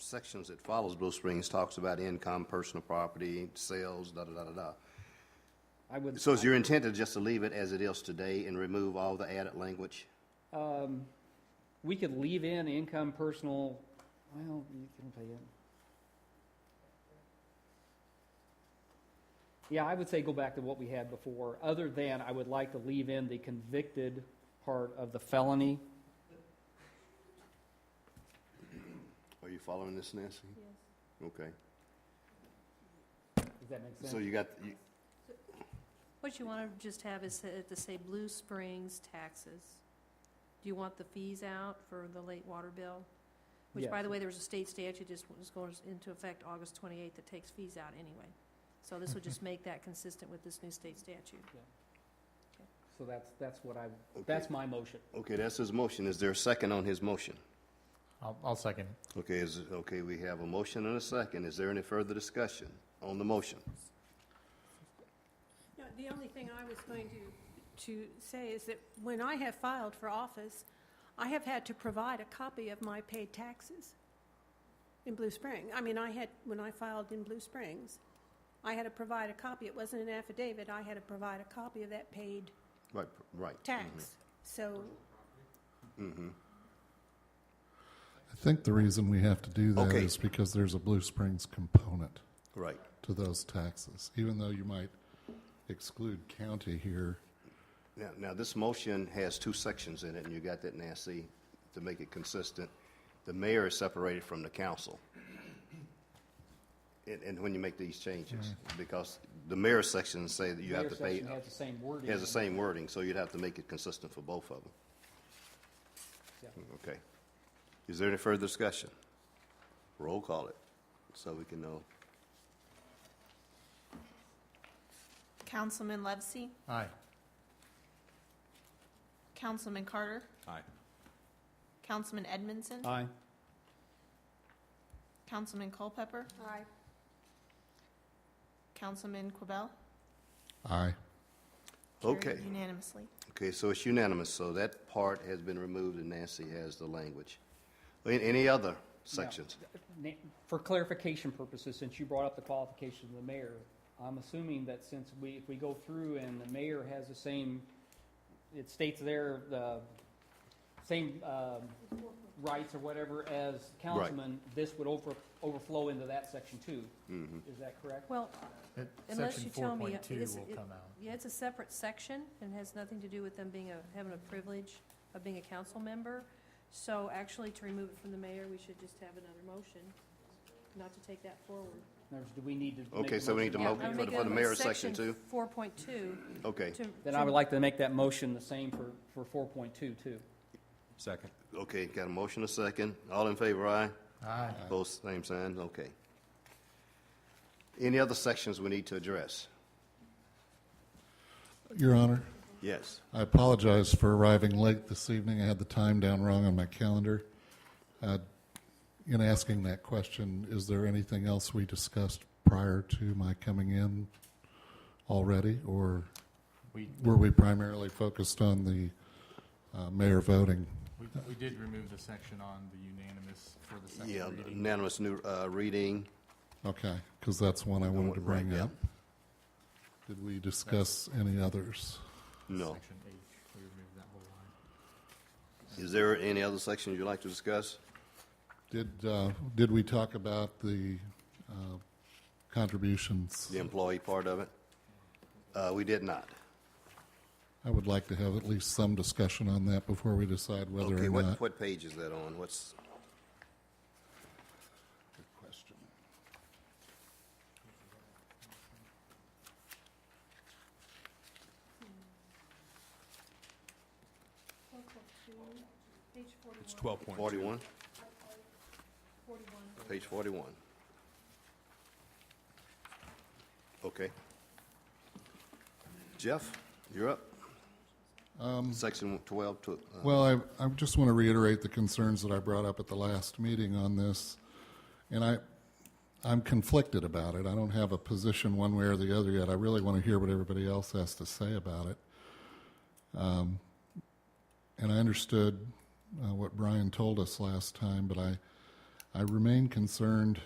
sections that follows Blue Springs talks about income, personal property, sales, da, da, da, da, da. I would, So is your intent to just to leave it as it is today and remove all the added language? Um, we could leave in income, personal, well, you can pay it. Yeah, I would say go back to what we had before, other than I would like to leave in the convicted part of the felony. Are you following this, Nancy? Okay, Does that make so sense? you got, you- What you want to just have is uh, to- to say Blue Springs taxes. Do you want the fees out for the late water bill? Which, by Yes. the way, there was a state statute just was going into effect August 28th that takes fees out anyway. So this would just make that consistent with this new state statute. So that's, that's what I, that's my motion. okay, that's his motion. Is there a second on his motion? I'll, I'll second. Okay, is, okay, we have a motion and a second. Is there any further discussion on the motion? No, the only thing I was going to, to say is that when I have filed for office, I have had to provide a copy of my paid taxes in Blue Spring. I mean, I had, when I filed in Blue Springs, I had to provide a copy. It wasn't an affidavit. I had to provide a copy of that paid Right, right. tax. So, I think the reason we have to do that Okay. is because there's a Blue Springs component Right. to those taxes. Even though you might exclude county here, Now, now, this motion has two sections in it, and you got that, Nancy, to make it consistent. The mayor is separated from the council. And, and when you make these changes, because the mayor section say that you have Mayor to pay, Mm-hmm. section has the same wording. has the same wording, so you'd have to make it consistent for both of them. Yeah. Okay. Is there any further discussion? Roll call it, so we can know. Councilman Levesey? Aye. Councilman Carter? Aye. Councilman Edmondson? Aye. Councilman Culpepper? aye. Councilman Quabell? aye. Carried Okay. Unanimously. Okay, so it's unanimous, so that part has been removed, and Nancy has the language. Any- Any other sections? Na- For clarification purposes, since you brought up the qualification of the mayor, I'm assuming that since we, if we go through and the mayor has the same, it states there, the same um, rights or whatever as councilman, this would over, overflow into that section too. Mm-hmm. Is that correct? Well, It- Unless Uh, Section you tell me, 4.2 is will it- come out. yeah, it's a separate section and has nothing to do with them being a, having a privilege of being a council member. So actually, to remove it from the mayor, we should just have another motion, not to take that forward. In other words, Do we need to? make Okay, a so we need to motion? mo- for the- for the mayor's section too? Four point two. Okay, Then I would like to make that motion the same for, for four point two too. Second. okay, got a motion, a second. All in favor, aye? Aye. Both same sign, okay. Any other sections we need to address? Your Honor, Yes. I apologize for arriving late this evening. I had the time down wrong on my calendar. Uh, In asking that question, is there anything else we discussed prior to my coming in already? Or We, were we primarily focused on the uh, mayor voting? we, we did remove the section on the unanimous for the Yeah, second reading. unanimous new, uh, reading. Okay, because that's one I wanted to Right, bring yeah. up. Did we discuss any others? No. Section H, we removed that whole line. Is there any other sections you'd like to discuss? Did, uh, did we talk about the uh, contributions? The employee part of it? Uh, we did not. I would like to have at least some discussion on that before we decide whether Okay, or what, not. what page is that on? What's, Page forty-one. It's 12.2. forty-one? Page forty-one. Okay. Jeff, you're up. Section twelve to, uh, Well, I, I just want to reiterate the concerns that I brought up at the last meeting on this. And I, I'm conflicted about it. I don't have a position one way or the other yet. I really want to hear what everybody else has to say about it. Um, and I understood uh, what Brian told us last time, but I, I remain concerned